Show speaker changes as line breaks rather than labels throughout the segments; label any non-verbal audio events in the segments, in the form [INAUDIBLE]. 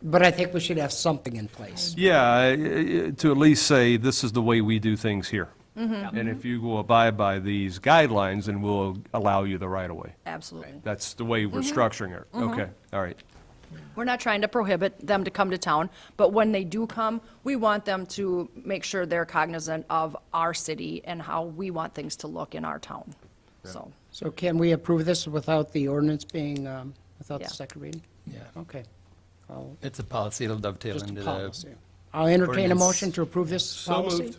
But I think we should have something in place.
Yeah, I- I- to at least say, this is the way we do things here. And if you will abide by these guidelines, then we'll allow you the right of way.
Absolutely.
That's the way we're structuring it. Okay, all right.
We're not trying to prohibit them to come to town, but when they do come, we want them to make sure they're cognizant of our city and how we want things to look in our town. So,
So can we approve this without the ordinance being, um, without the
Yeah.
second reading?
Yeah,
Okay. I'll-
it's a policy, it'll dovetail
Just a
into
policy.
the,
I'll entertain a
ordinance.
motion to approve this policy.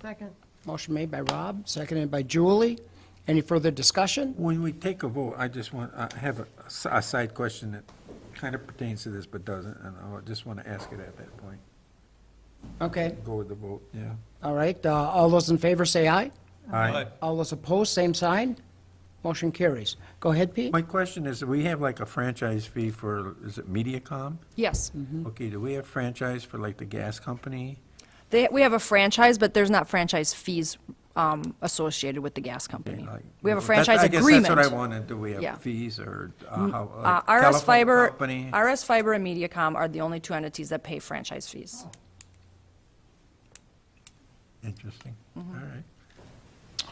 Second.
Motion made by Rob, seconded by Julie. Any further discussion?
When we take a vote, I just want, I have a, a side question that kind of pertains to this but doesn't, and I just want to ask it at that point.
Okay,
Go with the vote, yeah.
all right. uh, All those in favor say aye.
Aye.
All those opposed, same sign. Motion carries. Go ahead, Pete.
My question is, we have like a franchise fee for, is it MediaCom?
yes.
Okay, do we have franchise for like the gas company?
They, we have a franchise, but there's not franchise fees um, associated with the gas
Okay,
company.
like-
We have a
That-
franchise agreement.
I guess that's what I wanted, do we
Yeah.
have fees or uh, how,
Uh, RS
like telephone
Fiber,
company?
RS Fiber and MediaCom are the only two entities that pay franchise fees.
Interesting, all
Mm-hmm.
right.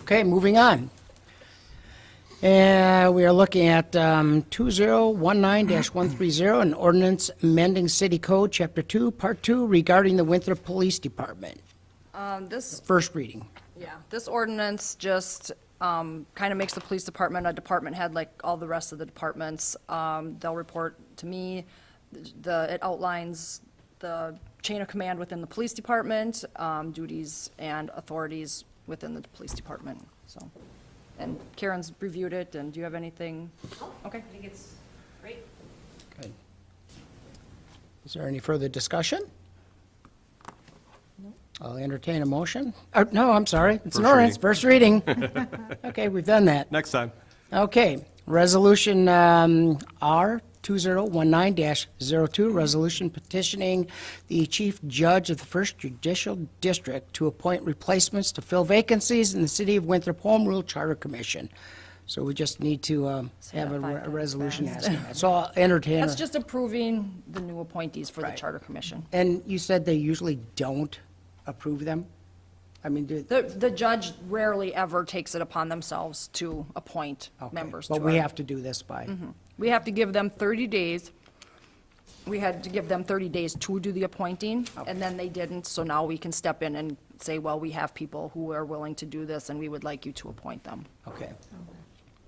Okay, moving on. And we are looking at um, 2019-130, an ordinance amending City Code, Chapter 2, Part 2, regarding the Winthrop Police Department.
Um, This,
First reading.
yeah, this ordinance just kind of makes the police department a department head like all the rest of the departments. Um, They'll report to me. The, it outlines the chain of command within the police department, um, duties and authorities within the police department, so. And Karen's reviewed it, and do you have anything? Okay.
I think it's great.
Good. Is there any further discussion? I'll entertain a motion. Uh, No, I'm sorry, it's an
First
ordinance, first reading. [LAUGHS] Okay, we've done that.
Next time.
Okay, Resolution um, R 2019-02, resolution petitioning the chief judge of the First Judicial District to appoint replacements to fill vacancies in the City of Winthrop Home Rule Charter Commission. So we just need to um, have a
that five
re- a
times
resolution
fast.
asking that. So I'll entertain.
That's
a-
just approving the new appointees for the
Right.
Charter Commission.
And you said they usually don't approve them? I mean, do...
The, the judge rarely ever takes it upon themselves to appoint
okay,
members to
But we
our- Mm-hmm.
have to do this by,
We have to give them 30 days. We had to give them 30 days to do the appointing, and then they didn't, so now we can step in and say, well, we have people who are willing to do this, and we would like you to appoint them.
okay.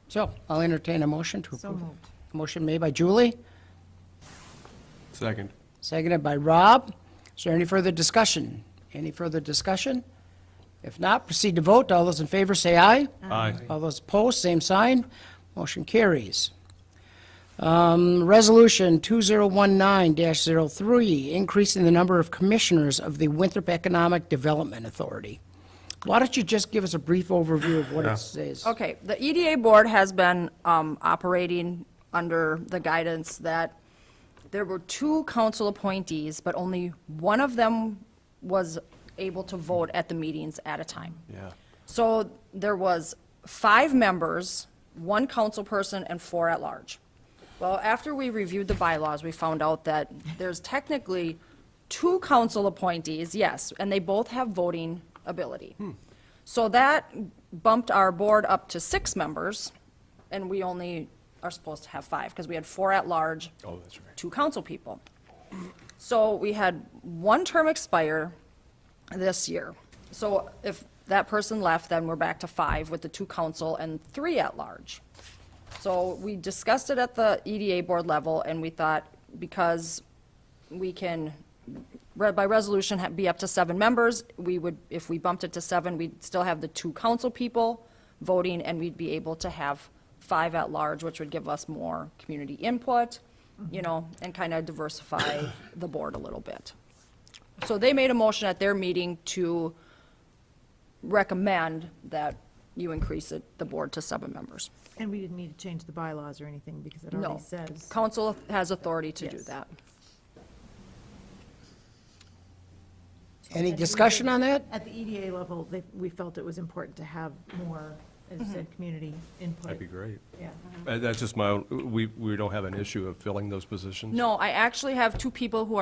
So I'll entertain a motion to
So
approve.
moved.
Motion made by Julie,
Second.
seconded by Rob. Is there any further discussion? Any further discussion? If not, proceed to vote. All those in favor say aye.
Aye.
All those opposed, same sign. Motion carries. Um, Resolution 2019-03, increasing the number of commissioners of the Winthrop Economic Development Authority. Why don't you just give us a brief overview of what it says?
Okay, the EDA board has been um, operating under the guidance that there were two council appointees, but only one of them was able to vote at the meetings at a time.
Yeah.
So there was five members, one council person, and four at-large. Well, after we reviewed the bylaws, we found out that there's technically two council appointees, yes, and they both have voting ability.
Hmm.
So that bumped our board up to six members, and we only are supposed to have five, because we had four at-large,
Oh, that's right.
two council people. So we had one term expire this year. So if that person left, then we're back to five with the two council and three at-large. So we discussed it at the EDA board level, and we thought, because we can, re- by resolution, ha- be up to seven members, we would, if we bumped it to seven, we'd still have the two council people voting, and we'd be able to have five at-large, which would give us more community input, you know, and kind of diversify the board a little bit. So they made a motion at their meeting to recommend that you increase it, the board to seven members.
And we didn't need to change the bylaws or anything because it
No.
already says.
Council has authority to do
Yes.
that.
Any discussion on that?
At the EDA level, they, we felt it was important to have more, as you said, community input.
That'd be great.
Yeah.
Uh, That's just my, own- we, we don't have an issue of filling those positions?
No, I actually have two people who